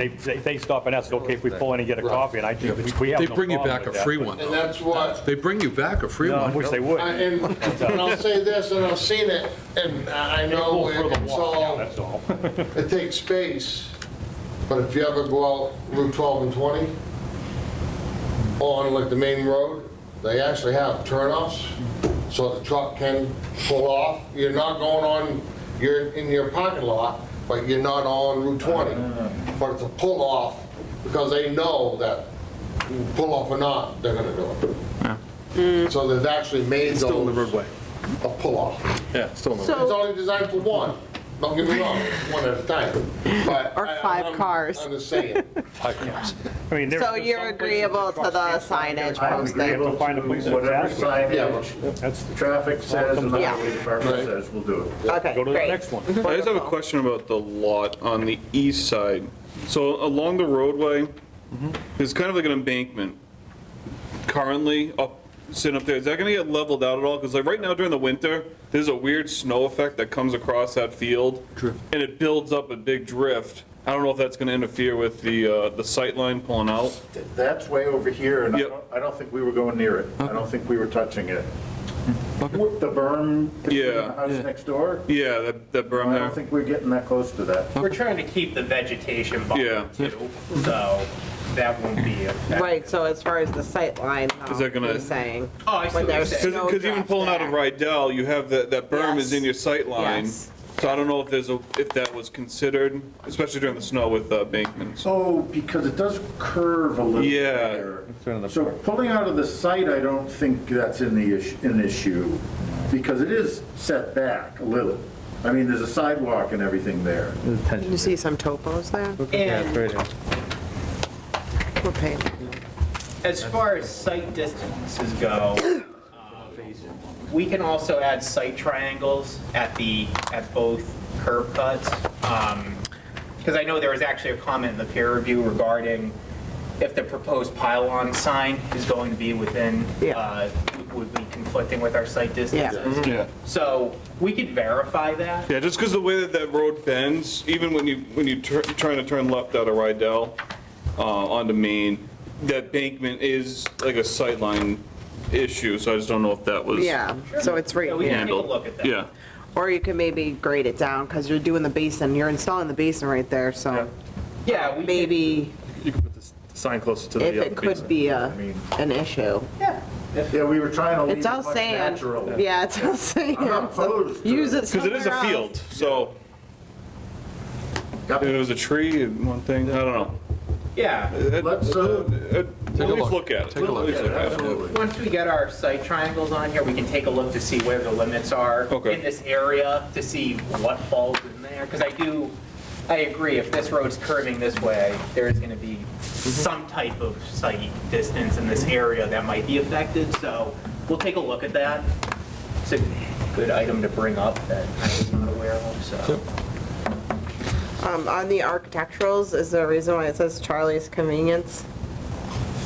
They, they they stop and ask, okay, if we pull in and get a copy, and I do, we we have They no bring you problem back a with that, free but- one, And though. that's what, They bring you back a free No, I one. wish they would. I- and and I'll say this, and I've seen it, and I I know Pull further it's walk, yeah, all, That's all. it takes space, but if you ever go out Route 12 and 20, on like the main road, they actually have turnoffs, so the truck can pull off. You're not going on, you're in your parking lot, but you're not on Route 20. But it's a pull-off, because they know that, pull-off or not, they're gonna do it. So they've actually made those. Still in the roadway. A pull-off. Yeah, still in the It's So- only designed for one, don't get me wrong, one at a time, but. Or I- five I'm- cars. I'm just saying. I mean, there- So there's some you're places agreeable across to the state, signage I would agree, posting? have to find a place that's Whatever adequate. Yeah. signage That's, the traffic says and the Yeah. highway department Right. says, we'll do it. Okay, go to the great. next one. I just have a question about the lot on the east side. So along the roadway, there's kind of like an embankment currently up, sitting up there. Is that gonna get leveled out at all? Because like right now during the winter, there's a weird snow effect that comes across that field. And it builds up a big drift. I don't know if that's gonna interfere with the, uh, the sight line pulling out. That's way over here, and I Yep. don't, I don't think we were going near it. I don't think we were touching it. The berm between Yeah. the house next door, Yeah, that, that berm I don't there. think we're getting that close to that. We're trying to keep the vegetation Yeah. buffer too, so that won't be affected. Right, so as far as the sight line, Is though, that gonna- you're saying. Oh, I see when what you're there's saying. snow Because even drifts pulling out of there. Rydell, you have that, that berm is in your sight line. Yes. So I don't know if there's a, if that was considered, especially during the snow with uh, embankments. Oh, because it does curve a little. Yeah. there. So pulling out of the site, I don't think that's in the issue, an issue, because it is set back a little. I mean, there's a sidewalk and everything there. You see some topos there? And What page? as far as site distances go, um, we can also add site triangles at the, at both curb cuts. Because I know there was actually a comment in the peer review regarding if the proposed pylon sign is going to be within, Yeah. uh, would be conflicting with our site distances. Yeah. So we could verify that. Yeah, just because the way that that road bends, even when you, when you tr- trying to turn left out of Rydell uh, onto Main, that bankment is like a sight line issue, so I just don't know if that was. Yeah, so it's right Yeah, we here. can- handled. Take a look at that. Yeah. Or you could maybe grade it down, because you're doing the basin, you're installing the basin right there, so Yeah, we could- maybe Oh, You can put this sign closer to the if other it could be a, an issue. Yeah, we were trying to leave it It's all much sand. natural. Yeah, it's all sand. I'm not opposed to Use it. it Because it is a somewhere else. field, so. If it was a tree, and one thing, I don't know. yeah. Let's, uh, Uh, At least look at it. Take a look. At least yeah, look at it. absolutely. Once we get our site triangles on here, we can take a look to see where the limits are Okay. in this area, to see what falls in there, because I do, I agree, if this road's curving this way, there is going to be some type of site distance in this area that might be affected, so we'll take a look at that. It's a good item to bring up that I was not aware of, so. Um, on the architecturals, is there a reason why it says Charlie's Convenience?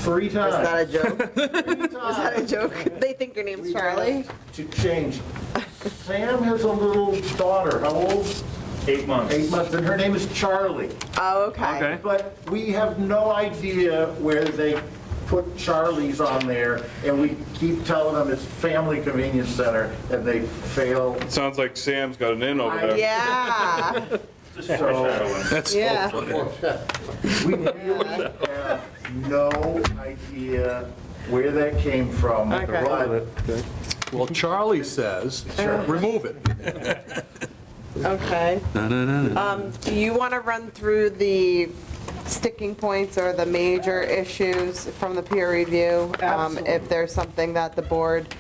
three Is that a times, joke? Is three that a times joke? They think your name's Charlie? to change. Sam has a little daughter, how old? Eight months. Eight months, and her name is Charlie. Oh, okay. Okay. But we have no idea where they put Charlie's on there, and we keep telling them it's Family Convenience Center, and they fail. Sounds like Sam's got an in over there. Yeah, So That's yeah. we really have no idea where that came from. Okay. but Well, Charlie says, remove it. Okay. Um, Do you want to run through the sticking points or the major issues from the peer review? um, If there's something that the board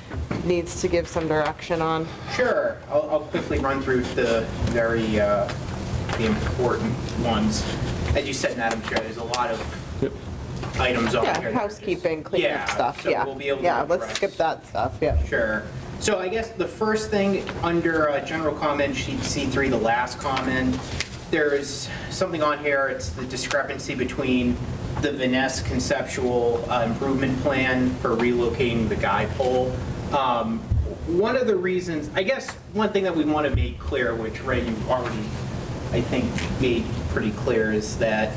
needs to give some direction on? Sure, I'll, I'll quickly run through the very, uh, the important ones. As you said, Madam Chair, there's a lot of items on here. that Yeah, are housekeeping, just- cleanup stuff, yeah. Yeah, so we'll be able to Yeah, let's address- skip that stuff, yeah. Sure. So I guess the first thing, under uh, general comment sheet C3, the last comment, there's something on here, it's the discrepancy between the Vaness conceptual uh, improvement plan for relocating the guy pole. Um, One of the reasons, I guess, one thing that we want to make clear, which Ray, you already, I think, made pretty clear, is that